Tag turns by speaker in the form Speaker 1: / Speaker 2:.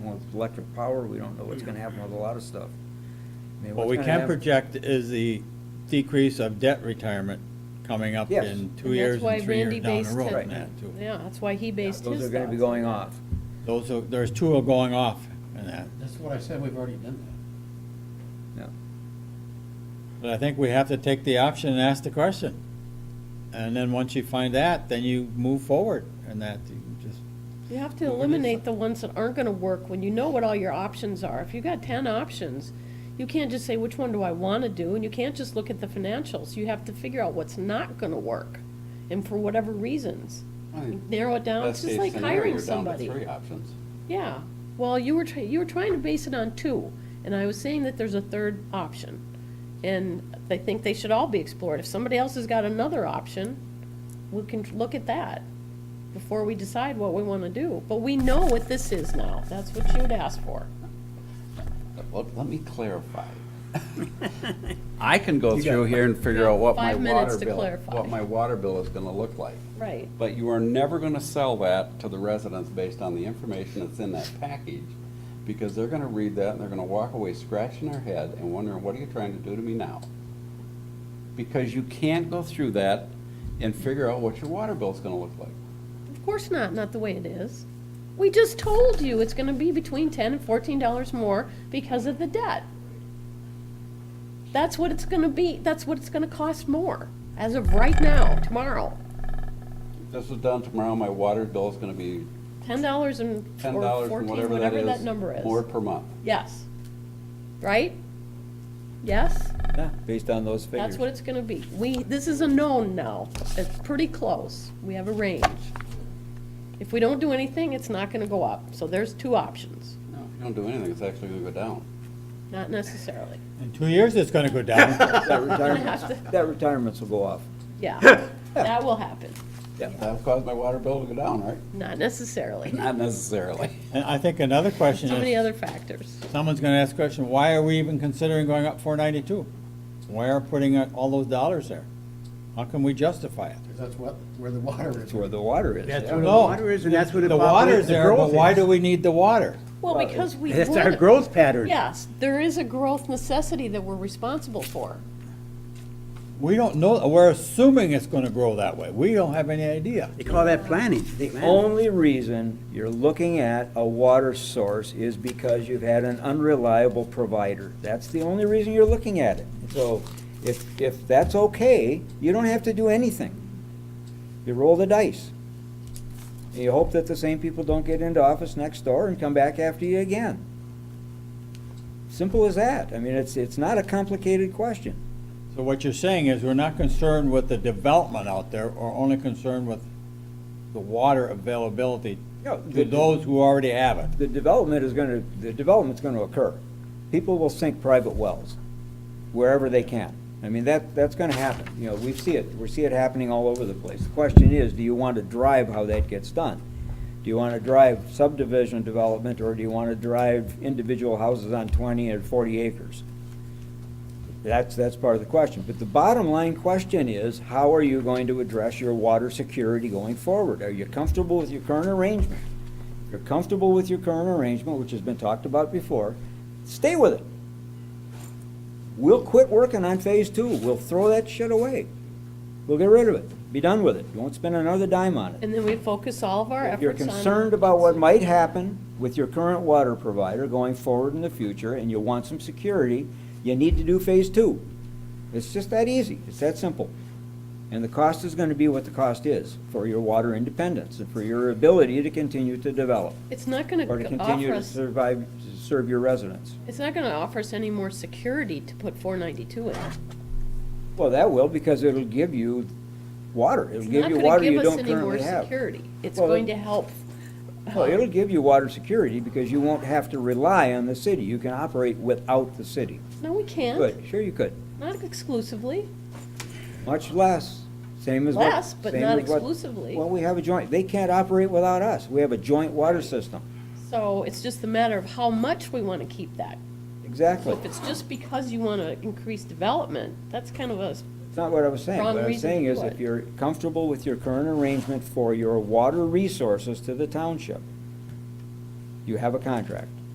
Speaker 1: with electric power, we don't know what's gonna happen with a lot of stuff. I mean,
Speaker 2: What
Speaker 1: what's
Speaker 2: we
Speaker 1: gonna
Speaker 2: can
Speaker 1: happen-
Speaker 2: project is the decrease of debt retirement coming up
Speaker 1: Yes.
Speaker 2: in two
Speaker 3: And
Speaker 2: years
Speaker 3: that's why
Speaker 2: and three
Speaker 3: Randy
Speaker 2: years down the
Speaker 3: based
Speaker 2: road.
Speaker 3: it-
Speaker 2: on that, too.
Speaker 3: Yeah, that's why he
Speaker 1: Yeah,
Speaker 3: based his.
Speaker 1: Those are gonna be
Speaker 3: thoughts on
Speaker 1: going
Speaker 3: that.
Speaker 1: off.
Speaker 2: Those are, there's two are going off in that.
Speaker 4: That's what I said, we've already done that.
Speaker 1: Yeah.
Speaker 2: But I think we have to take the option and ask the question. And then once you find that, then you move forward and that, you just,
Speaker 3: You have to eliminate the ones that aren't gonna work when you know what all your options are. If you've got ten options, you can't just say, which one do I wanna do? And you can't just look at the financials. You have to figure out what's not gonna work and for whatever reasons. You Narrow it down, it's
Speaker 5: Best
Speaker 3: just
Speaker 5: case
Speaker 3: like
Speaker 5: scenario,
Speaker 3: hiring
Speaker 5: you're down to
Speaker 3: somebody.
Speaker 5: Three options.
Speaker 3: Yeah, well, you were, try- you were trying to base it on two, and I was saying that there's a third option. And I think they should all be explored. If somebody else has got another option, we can look at that before we decide what we want to do. But we know what this is now. That's what you'd ask for.
Speaker 5: Well, let me clarify. I can go through here and figure out what my
Speaker 3: Five minutes
Speaker 5: water
Speaker 3: to
Speaker 5: bill,
Speaker 3: clarify.
Speaker 5: what my water bill is gonna look like.
Speaker 3: Right.
Speaker 5: But you are never gonna sell that to the residents based on the information that's in that package, because they're gonna read that and they're gonna walk away scratching their head and wondering, what are you trying to do to me now? Because you can't go through that and figure out what your water bill's gonna look like.
Speaker 3: Of course not, not the way it is. We just told you it's gonna be between ten and fourteen dollars more because of the debt. That's what it's gonna be, that's what it's gonna cost more, as of right now, tomorrow.
Speaker 5: If This is done tomorrow, my water bill is gonna be
Speaker 3: Ten dollars and,
Speaker 5: ten
Speaker 3: or
Speaker 5: dollars and
Speaker 3: fourteen,
Speaker 5: whatever that is.
Speaker 3: whatever that number is.
Speaker 5: More per month.
Speaker 3: Yes. Right? Yes?
Speaker 1: Yeah, based on those figures.
Speaker 3: That's what it's gonna be. We, this is a known now. It's pretty close. We have a range. If we don't do anything, it's not gonna go up. So there's two options,
Speaker 5: No, if you don't do anything, it's actually gonna go down.
Speaker 3: not necessarily.
Speaker 2: in two years, it's gonna go down.
Speaker 1: That retirement, that retirements will go off.
Speaker 3: Yeah, that will happen.
Speaker 5: That'll cause my water bill to go down, right?
Speaker 3: Not necessarily.
Speaker 5: Not necessarily.
Speaker 2: And I think another question
Speaker 3: So many
Speaker 2: is,
Speaker 3: other factors.
Speaker 2: someone's gonna ask the question, why are we even considering going up four ninety-two? Why are putting out all those dollars there? How can we justify it?
Speaker 4: Because that's what, where the water is.
Speaker 1: That's where the water is.
Speaker 6: That's
Speaker 1: yeah.
Speaker 6: where the
Speaker 2: No.
Speaker 6: water is, and that's where the.
Speaker 2: The water's
Speaker 6: the
Speaker 2: there, but
Speaker 6: growth
Speaker 2: why
Speaker 6: is.
Speaker 2: do we need the water?
Speaker 3: Well, because we.
Speaker 6: That's our
Speaker 3: would-
Speaker 6: growth pattern.
Speaker 3: Yes, there is a growth necessity that we're responsible for.
Speaker 2: We don't know, we're assuming it's gonna grow that way. We don't have any idea.
Speaker 6: They call that planning. They
Speaker 1: The
Speaker 6: plan.
Speaker 1: only reason you're looking at a water source is because you've had an unreliable provider. That's the only reason you're looking at it. So if, if that's okay, you don't have to do anything. You roll the dice. And You hope that the same people don't get into office next door and come back after you again. Simple as that. I mean, it's, it's not a complicated question.
Speaker 2: So what you're saying is we're not concerned with the development out there, or only concerned with the water availability
Speaker 1: Yeah,
Speaker 2: to
Speaker 1: the-
Speaker 2: those who already have it.
Speaker 1: the development is gonna, the development's gonna occur. People will sink private wells wherever they can. I mean, that, that's gonna happen. You know, we see it, we see it happening all over the place. The question is, do you want to drive how that gets done? Do you want to drive subdivision development, or do you want to drive individual houses on twenty and forty acres? That's, that's part of the question. But the bottom line question is, how are you going to address your water security going forward? Are you comfortable with your current arrangement? If you're comfortable with your current arrangement, which has been talked about before, stay with it. We'll quit working on phase two. We'll throw that shit away. We'll get rid of it. Be done with it. You won't spend another dime on it.
Speaker 3: And then we focus all of our efforts
Speaker 1: If
Speaker 3: on.
Speaker 1: you're concerned about what might happen with your current water provider going forward in the future, and you want some security, you need to do phase two. It's just that easy. It's that simple. And the cost is gonna be what the cost is for your water independence and for your ability to continue to develop
Speaker 3: It's not gonna
Speaker 1: or to continue
Speaker 3: offer
Speaker 1: to
Speaker 3: us,
Speaker 1: survive, to serve your residents.
Speaker 3: it's not gonna offer us any more security to put four ninety-two in.
Speaker 1: Well, that will, because it'll give you water. It'll
Speaker 3: It's
Speaker 1: give
Speaker 3: not
Speaker 1: you
Speaker 3: gonna
Speaker 1: water
Speaker 3: give
Speaker 1: you
Speaker 3: us
Speaker 1: don't
Speaker 3: any more
Speaker 1: currently have.
Speaker 3: security. It's
Speaker 1: Well,
Speaker 3: going
Speaker 1: it-
Speaker 3: to help. uh,
Speaker 1: Well, it'll give you water security, because you won't have to rely on the city. You can operate without the city.
Speaker 3: No, we can't,
Speaker 1: Good, sure you could.
Speaker 3: not exclusively.
Speaker 1: Much less, same as what.
Speaker 3: Less, but
Speaker 1: same
Speaker 3: not
Speaker 1: as what-
Speaker 3: exclusively.
Speaker 1: Well, we have a joint, they can't operate without us. We have a joint water system.
Speaker 3: So it's just a matter of how much we wanna keep that. So
Speaker 1: Exactly.
Speaker 3: if it's just because you wanna increase development, that's kind of a
Speaker 1: It's not what I was saying.
Speaker 3: Wrong
Speaker 1: What I was
Speaker 3: reason
Speaker 1: saying
Speaker 3: to
Speaker 1: is
Speaker 3: do
Speaker 1: if
Speaker 3: it.
Speaker 1: you're comfortable with your current arrangement for your water resources to the township, you have a contract.